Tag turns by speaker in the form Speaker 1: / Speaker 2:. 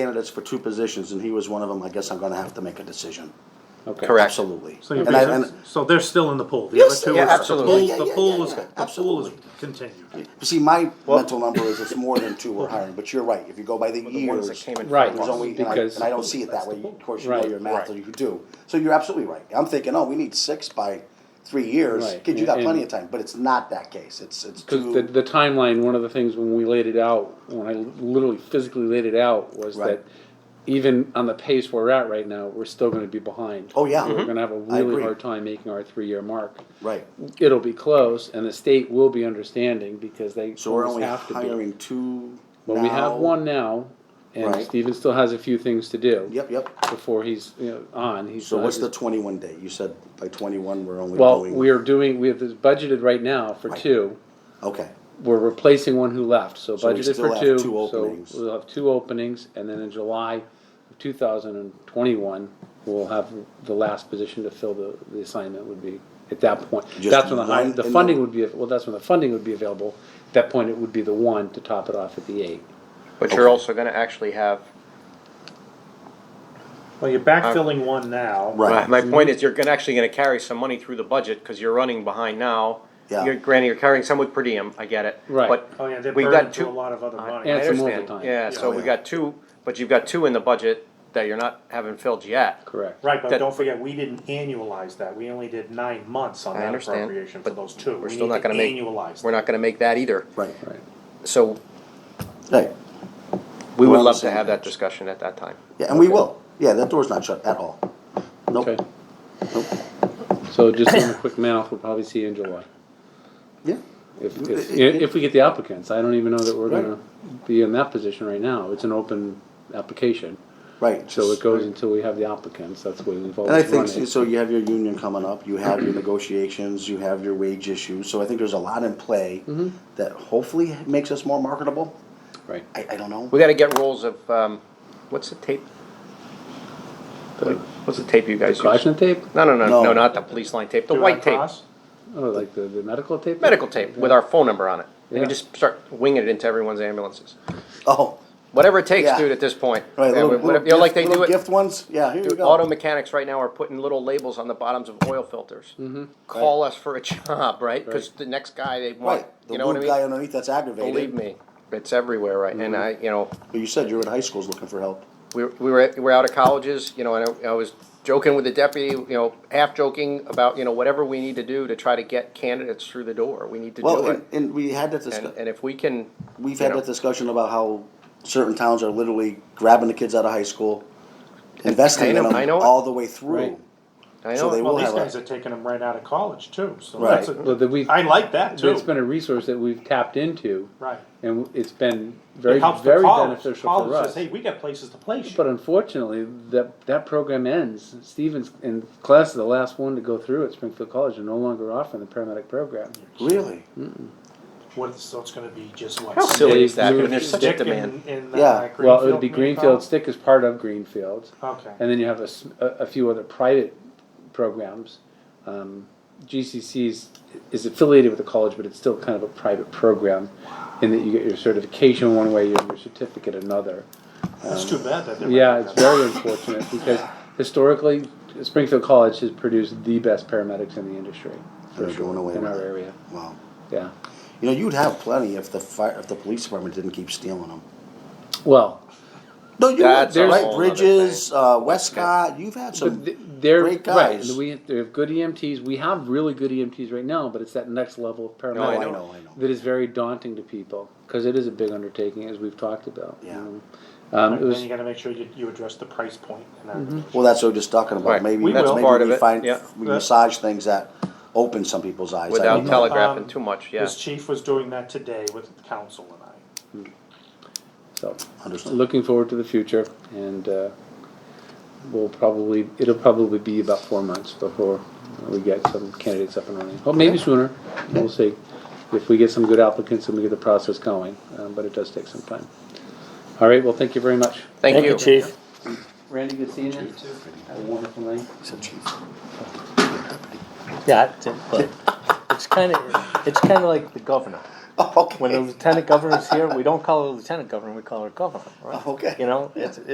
Speaker 1: candidates for two positions, and he was one of them, I guess I'm gonna have to make a decision.
Speaker 2: Okay.
Speaker 3: Correct.
Speaker 1: Absolutely.
Speaker 4: So you're
Speaker 1: And I, and,
Speaker 4: basically, so they're still in the pool? The
Speaker 1: Yes,
Speaker 4: other two
Speaker 1: yeah,
Speaker 4: are- the
Speaker 3: absolutely.
Speaker 4: pool-
Speaker 1: Yeah, yeah,
Speaker 4: The pool
Speaker 1: yeah,
Speaker 4: is,
Speaker 1: yeah,
Speaker 4: the pool is
Speaker 1: absolutely.
Speaker 4: continued.
Speaker 1: see, my mental number is it's more than two we're hiring, but you're right, if you go by the
Speaker 3: The ones that
Speaker 1: years,
Speaker 3: came in.
Speaker 2: Right.
Speaker 1: there's only, and I,
Speaker 2: Because-
Speaker 1: and I don't see it that way, of course, you know
Speaker 2: Right.
Speaker 1: your math, or you do. So you're absolutely right, I'm thinking, oh, we need six by three years,
Speaker 2: Right,
Speaker 1: kid, you got
Speaker 2: and-
Speaker 1: plenty of time, but it's not that case, it's, it's
Speaker 2: Because the,
Speaker 1: two,
Speaker 2: the timeline, one of the things when we laid it out, when I literally physically laid it out, was
Speaker 1: Right.
Speaker 2: that even on the pace we're at right now, we're still going to be behind.
Speaker 1: oh, yeah.
Speaker 2: We're going to have a
Speaker 1: I
Speaker 2: really
Speaker 1: agree.
Speaker 2: hard time making our three-year mark.
Speaker 1: Right,
Speaker 2: It'll be close, and the state will be understanding because they
Speaker 1: so we're
Speaker 2: almost
Speaker 1: only
Speaker 2: have to be.
Speaker 1: hiring two
Speaker 2: But we have
Speaker 1: now.
Speaker 2: one now, and
Speaker 1: Right.
Speaker 2: Steven still has a few things to do
Speaker 1: Yep, yep.
Speaker 2: before he's you know, on. He's
Speaker 1: So
Speaker 2: not-
Speaker 1: what's the twenty-one day? You said by twenty-one, we're only
Speaker 2: well?
Speaker 1: going.
Speaker 2: We are doing. We have this budgeted right now for
Speaker 1: Right.
Speaker 2: two.
Speaker 1: Okay,
Speaker 2: we're replacing one who left, so
Speaker 1: So we
Speaker 2: budgeted
Speaker 1: still
Speaker 2: for
Speaker 1: have
Speaker 2: two,
Speaker 1: two
Speaker 2: so
Speaker 1: openings.
Speaker 2: we'll have two openings, and then in July of two thousand and twenty-one, we'll have the last position to fill the, the assignment would be, at that point.
Speaker 1: Just
Speaker 2: That's when the, hi-
Speaker 1: one
Speaker 2: the
Speaker 1: in
Speaker 2: funding
Speaker 1: the-
Speaker 2: would be, well, that's when the funding would be available, at that point, it would be the one to top it off at the eight.
Speaker 3: But you're also gonna actually have,
Speaker 4: Well, you're backfilling one now.
Speaker 3: my,
Speaker 1: right.
Speaker 3: my point is, you're gonna, actually gonna carry some money through the budget, cause you're running behind now.
Speaker 1: Yeah.
Speaker 3: You're, granted, you're carrying some with per diem, I get it.
Speaker 2: Right.
Speaker 3: But
Speaker 4: Oh, yeah, they're
Speaker 3: we
Speaker 4: burning
Speaker 3: got
Speaker 4: through
Speaker 3: two.
Speaker 4: a lot of other money.
Speaker 2: And
Speaker 3: I
Speaker 2: some
Speaker 3: understand.
Speaker 2: overtime.
Speaker 3: Yeah, so
Speaker 1: Yeah.
Speaker 3: we got two, but you've got two in the budget that you're not, haven't filled yet.
Speaker 2: Correct.
Speaker 4: Right, but
Speaker 3: that-
Speaker 4: don't forget, we didn't annualize that. We only did nine months on
Speaker 3: I
Speaker 4: that
Speaker 3: understand,
Speaker 4: appropriation for
Speaker 3: but
Speaker 4: those two.
Speaker 3: We're
Speaker 4: We
Speaker 3: still
Speaker 4: need
Speaker 3: not
Speaker 4: to
Speaker 3: gonna make,
Speaker 4: Annualize.
Speaker 3: we're
Speaker 4: that.
Speaker 3: not gonna make that either.
Speaker 1: Right,
Speaker 2: Right.
Speaker 3: So
Speaker 1: right.
Speaker 3: we
Speaker 1: We're
Speaker 3: would
Speaker 1: on the
Speaker 3: love to
Speaker 1: same
Speaker 3: have that
Speaker 1: page.
Speaker 3: discussion at that time.
Speaker 1: Yeah, and we will. Yeah, that door's not shut at all.
Speaker 2: Okay.
Speaker 1: Nope, nope.
Speaker 2: So just doing a quick math, we'll probably see you in July.
Speaker 1: Yeah,
Speaker 2: If, if, if we get the applicants, I don't even know that we're
Speaker 1: Right.
Speaker 2: gonna be in that position right now, it's an open application.
Speaker 1: right.
Speaker 2: So it
Speaker 1: just-
Speaker 2: goes until we have the applicants, that's the way we've
Speaker 1: And I
Speaker 2: always run
Speaker 1: think,
Speaker 2: it.
Speaker 1: so you have your union coming up, you have your negotiations, you have your wage issues, so I think there's a lot in play
Speaker 3: Mm-hmm.
Speaker 1: that hopefully makes us more marketable.
Speaker 2: Right.
Speaker 1: I, I don't know.
Speaker 3: We gotta get rolls of, um, what's the tape?
Speaker 2: The
Speaker 3: What's the tape you guys use?
Speaker 2: caution tape?
Speaker 3: No, no, no,
Speaker 1: No.
Speaker 3: no, not the police line tape, the
Speaker 4: Do it
Speaker 3: white
Speaker 4: on
Speaker 3: tape,
Speaker 4: cost?
Speaker 2: Oh, like the, the medical tape?
Speaker 3: medical tape with our phone number on it. And
Speaker 2: Yeah.
Speaker 3: we just start winging it into everyone's ambulances.
Speaker 1: Oh,
Speaker 3: Whatever it takes,
Speaker 1: Yeah.
Speaker 3: dude, at this point.
Speaker 1: right,
Speaker 3: Yeah,
Speaker 1: little,
Speaker 3: we-
Speaker 1: little
Speaker 3: whatever- you know, like
Speaker 1: gift,
Speaker 3: they do
Speaker 1: little
Speaker 3: it,
Speaker 1: gift ones, yeah, here you
Speaker 3: dude,
Speaker 1: go.
Speaker 3: auto mechanics right now are putting little labels on the bottoms of oil filters.
Speaker 1: Mm-hmm.
Speaker 3: Call us for a job, right? Cause the next guy they want,
Speaker 1: Right, the
Speaker 3: you know what I
Speaker 1: little guy
Speaker 3: mean?
Speaker 1: underneath that's
Speaker 3: Believe
Speaker 1: aggravated,
Speaker 3: me, it's everywhere, right? And
Speaker 1: Mm-hmm.
Speaker 3: I, you know,
Speaker 1: but you said you were at high schools looking for help.
Speaker 3: we, we were, at- we were out of colleges, you know, and I, I was joking with the deputy, you know, half joking about, you know, whatever we need to do to try to get candidates through the door, we need to
Speaker 1: Well,
Speaker 3: do
Speaker 1: and,
Speaker 3: it.
Speaker 1: and we had that
Speaker 3: And,
Speaker 1: discussion.
Speaker 3: and if we can.
Speaker 1: We've
Speaker 3: you
Speaker 1: had
Speaker 3: know,
Speaker 1: that discussion about how certain towns are literally grabbing the kids out of high school, investing in
Speaker 3: know-
Speaker 1: them
Speaker 3: I know it.
Speaker 1: all the way through.
Speaker 2: Right.
Speaker 3: I
Speaker 1: so
Speaker 3: know.
Speaker 1: they
Speaker 4: Well,
Speaker 1: We'll
Speaker 4: these
Speaker 1: have a-
Speaker 4: guys are taking them right out of college too, so
Speaker 1: Right.
Speaker 4: that's,
Speaker 2: Well,
Speaker 4: a-
Speaker 2: that we've,
Speaker 4: I like that too.
Speaker 2: it's been a resource that we've tapped into.
Speaker 4: Right.
Speaker 2: And it's been very,
Speaker 4: It helps the
Speaker 2: very
Speaker 4: college.
Speaker 2: beneficial
Speaker 4: College
Speaker 2: for
Speaker 4: says,
Speaker 2: us.
Speaker 4: Hey, we got places to place
Speaker 2: But
Speaker 4: you.
Speaker 2: unfortunately, that, that program ends. Stevens in class is the last one to go through at Springfield College and no longer offering the paramedic program.
Speaker 1: Really?
Speaker 4: What, so it's gonna be just what?
Speaker 3: How silly is that?
Speaker 2: They've-
Speaker 3: I mean, there's such a
Speaker 4: Dick
Speaker 3: demand.
Speaker 4: in- in, uh,
Speaker 1: Yeah.
Speaker 2: Well, it would be
Speaker 4: maybe
Speaker 2: Greenfield,
Speaker 4: called?
Speaker 2: Stick is part of Greenfield.
Speaker 4: Okay.
Speaker 2: And then you have a, s- a- a few other private programs. Um, GCC's is affiliated with the college, but it's still kind of a private program in that you get your certification one way, your, your certificate another.
Speaker 4: It's too bad that they're.
Speaker 2: Yeah, it's very unfortunate because historically, Springfield College has produced the best paramedics in the industry. for
Speaker 1: They're
Speaker 2: sure,
Speaker 1: going away
Speaker 2: In
Speaker 1: with
Speaker 2: our
Speaker 1: it.
Speaker 2: area,
Speaker 1: Wow.
Speaker 2: yeah.
Speaker 1: You know, you'd have plenty if the fire, if the police department didn't keep stealing them.
Speaker 2: Well,
Speaker 1: No, you
Speaker 3: That's
Speaker 1: would,
Speaker 3: a
Speaker 1: right?
Speaker 3: whole
Speaker 1: Bridges, uh, Westcott. You've had some
Speaker 2: But th- they're
Speaker 1: great
Speaker 2: right.
Speaker 1: guys.
Speaker 2: We they have good EMTs. We have really good EMTs right now, but it's that next level of paramedic
Speaker 3: No, I
Speaker 1: know, I know.
Speaker 2: that is very daunting to people because it is a big undertaking, as we've talked about. you
Speaker 1: Yeah.
Speaker 2: know. Um, it
Speaker 4: Then
Speaker 2: was
Speaker 4: you gotta make sure you, you address the price point and everything.
Speaker 1: Mm-hmm. well, that's what we're just talking about.
Speaker 3: Right.
Speaker 1: Maybe
Speaker 4: We
Speaker 1: maybe
Speaker 4: will.
Speaker 3: Part of
Speaker 1: we
Speaker 3: it,
Speaker 1: find
Speaker 3: yeah.
Speaker 1: we
Speaker 4: Yeah.
Speaker 1: massage things that open some people's eyes. I
Speaker 3: Without
Speaker 1: don't know.
Speaker 3: telegraphing
Speaker 4: Um,
Speaker 3: too much, yeah.
Speaker 4: His chief was doing that today with the council and I.
Speaker 2: so
Speaker 1: Understood.
Speaker 2: looking forward to the future, and uh, we'll probably it'll probably be about four months before we get some candidates up and running. Well, maybe sooner. We'll see if we get some good applicants and we get the process going. Um, but it does take some time. All right. Well, thank you very much.
Speaker 3: Thank you.
Speaker 4: chief.
Speaker 2: Randy, good seeing you. Have a wonderful night.
Speaker 1: He said, "Chief."
Speaker 5: Yeah, it's, but it's kind of it's kind of like the governor.
Speaker 1: Oh, okay.
Speaker 5: When the lieutenant governor's here, we don't call her lieutenant governor; we call her governor, right?
Speaker 1: Okay.
Speaker 5: You know, it's